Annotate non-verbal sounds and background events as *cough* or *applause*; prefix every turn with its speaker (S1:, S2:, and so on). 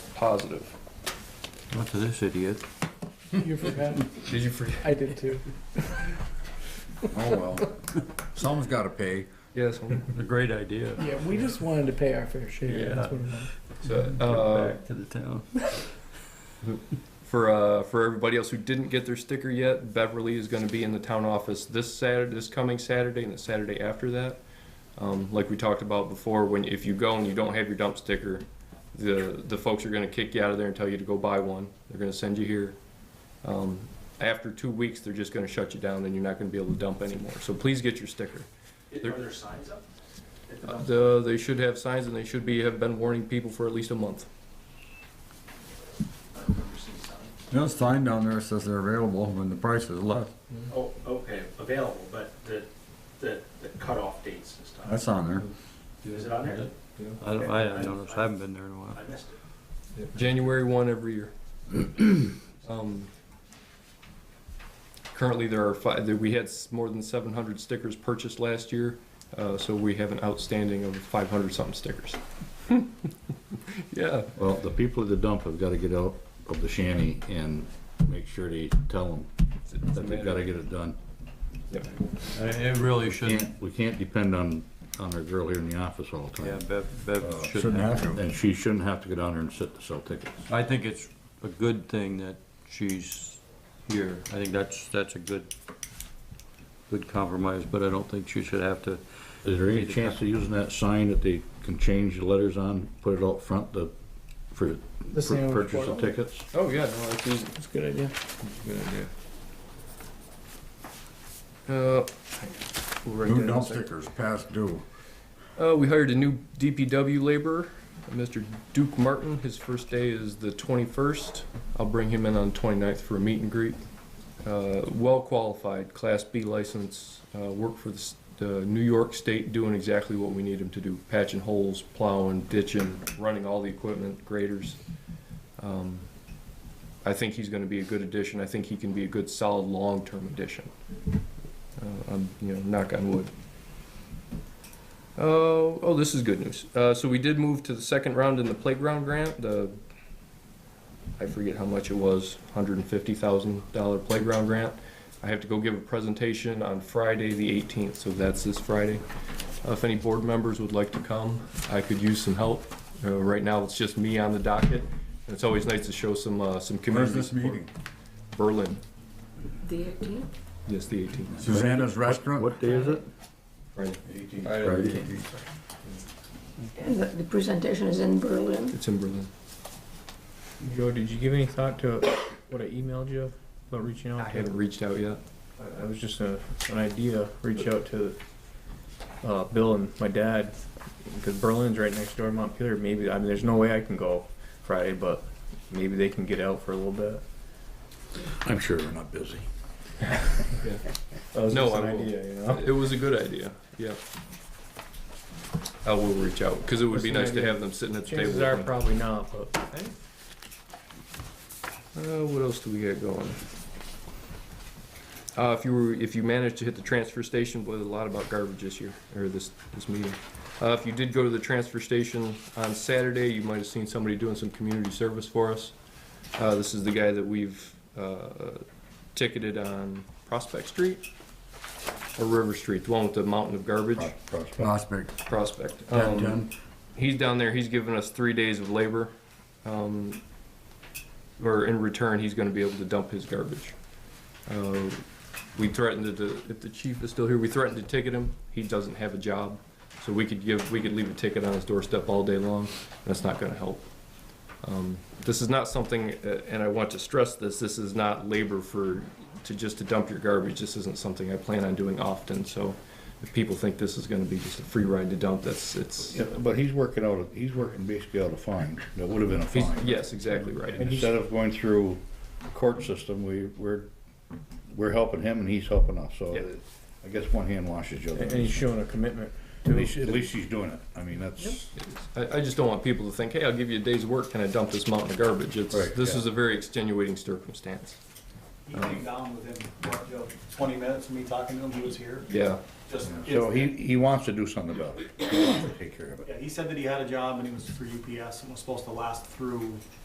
S1: positive.
S2: Not to this idiot.
S3: You forgot.
S4: Did you forget?
S3: I did too.
S4: Oh, well. Someone's gotta pay.
S1: Yes, a great idea.
S3: Yeah, we just wanted to pay our fair share. That's what it was.
S1: So, uh,
S2: Back to the town.
S1: for uh, for everybody else who didn't get their sticker yet, Beverly is going to be in the town office this Saturday, this coming Saturday, and the Saturday after that. Um, like we talked about before, when if you go and you don't have your dump sticker, the the folks are going to kick you out of there and tell you to go buy one. They're going to send you here. Um, after two weeks, they're just going to shut you down, and you're not going to be able to dump anymore. So please get your sticker. There-
S5: Are there signs up? at the
S1: Uh,
S5: dump?
S1: the, they should have signs, and they should be have been warning people for at least a month.
S5: I don't remember seeing signs.
S4: No sign down there says they're available when the price is less.
S5: Oh, okay, available, but the, the, the cutoff dates and stuff.
S4: That's on there.
S5: Is it on there?
S2: I don't, I haven't noticed, I haven't been there in a while.
S5: I missed it.
S1: January one every *clears throat* year. Um, Currently, there are five, we had s- more than seven hundred stickers purchased last year, uh, so we have an outstanding of five hundred something stickers. *laughs* Yeah,
S6: Well, the people at the dump have gotta get out of the shanty and make sure they tell them
S1: it's- it's a
S6: that they've gotta
S1: matter-
S6: get it done.
S2: It it really shouldn't,
S6: Can't- We can't depend on, on our girl here in the office all the
S2: yeah,
S6: time.
S2: Bev,
S1: Uh,
S2: Bev shouldn't have.
S4: to.
S6: And she shouldn't have to go down there and sit to sell tickets.
S2: I think it's a good thing that she's here. I think that's, that's a good, good compromise, but I don't think she should have to.
S6: Is there any chance of using that sign that they can change the letters on, put it out front to, for,
S3: The
S6: for
S3: sandwich
S6: purchase of
S3: board.
S6: tickets?
S1: Oh, yeah, no, that's easy.
S3: That's a good idea.
S1: Good idea. Uh, we'll write that
S4: New
S1: in a
S4: dump
S1: second.
S4: stickers, past due.
S1: Uh, we hired a new DPW laborer, Mr. Duke Martin. His first day is the 21st. I'll bring him in on the 29th for a meet and greet. Uh, well qualified, Class B license, uh, worked for the, s- the New York State, doing exactly what we need him to do: patching holes, plowing, ditching, running all the equipment, graders. Um, I think he's going to be a good addition. I think he can be a good, solid, long-term addition. Uh, I'm, you know, knock on wood. Oh, oh, this is good news. Uh, so we did move to the second round in the playground grant, the, I forget how much it was, hundred and fifty thousand dollar playground grant. I have to go give a presentation on Friday, the eighteenth, so that's this Friday. Uh, If any board members would like to come, I could use some help. Uh, right now, it's just me on the docket, and it's always nice to show some, uh, some
S4: Where's
S1: community
S4: this
S1: support.
S4: meeting?
S1: Berlin,
S7: The eighteenth?
S1: yes, the eighteenth,
S4: Susanna's Restaurant?
S6: What day is it?
S1: Friday.
S6: Friday?
S7: And the, the presentation is in Berlin.
S1: It's in Berlin.
S8: Joe, did you give any thought to what I emailed you about reaching
S1: I
S8: out?
S1: haven't reached out yet.
S8: I was just a, an idea, reach out to uh, Bill and my dad, because Berlin's right next door to Montpelier. Maybe, I mean, there's no way I can go Friday, but maybe they can get out for a little bit.
S6: I'm sure they're not busy.
S8: That was
S1: No,
S8: just an
S1: I will.
S8: idea, you know?
S1: It was a good idea, yeah. I will reach out, because it would be
S8: That's
S1: nice
S8: an
S1: to
S8: idea.
S1: have them sitting at the table.
S8: Chances are
S1: with me.
S8: probably not, but
S1: Uh, what else do we got going? Uh, if you were, if you managed to hit the transfer station, boy, there's a lot about garbage this year, or this, this meeting. Uh, if you did go to the transfer station on Saturday, you might have seen somebody doing some community service for us. Uh, this is the guy that we've, uh, ticketed on Prospect Street? Or River Street, the one with the mountain of garbage,
S4: Prospect,
S1: Prospect.
S4: ten,
S1: Um,
S4: ten.
S1: he's down there. He's given us three days of labor, um, or in return, he's going to be able to dump his garbage. Uh, we threatened to, if the chief is still here, we threatened to ticket him. He doesn't have a job, so we could give, we could leave a ticket on his doorstep all day long. That's not going to help. Um, this is not something, uh, and I want to stress this. This is not labor for to just to dump your garbage. This isn't something I plan on doing often. So, if people think this is going to be just a free ride to dump, that's it's
S6: Yeah, but he's working out, of- he's working basically out a fine, that would have been a
S1: He's,
S6: fine.
S1: yes, exactly right.
S6: And Instead of going through court system, we, we're, we're helping him and he's helping us, so
S1: Yeah.
S6: I guess one hand washes the other.
S8: and he's showing a commitment.
S6: At least, at least he's doing it, I mean, that's,
S1: I, I just don't want people to think, hey, I'll give you a day's work, can I dump this mountain of garbage? It's,
S6: Right,
S1: this
S6: yeah.
S1: is a very extenuating circumstance.
S5: He came down with him, what, Joe, twenty minutes of me talking to him, he was here,
S1: Yeah,
S5: just.
S6: so he, he wants to do something about it, he wants to take care of it.
S5: Yeah, he said that he had a job and he was for UPS and was supposed to last through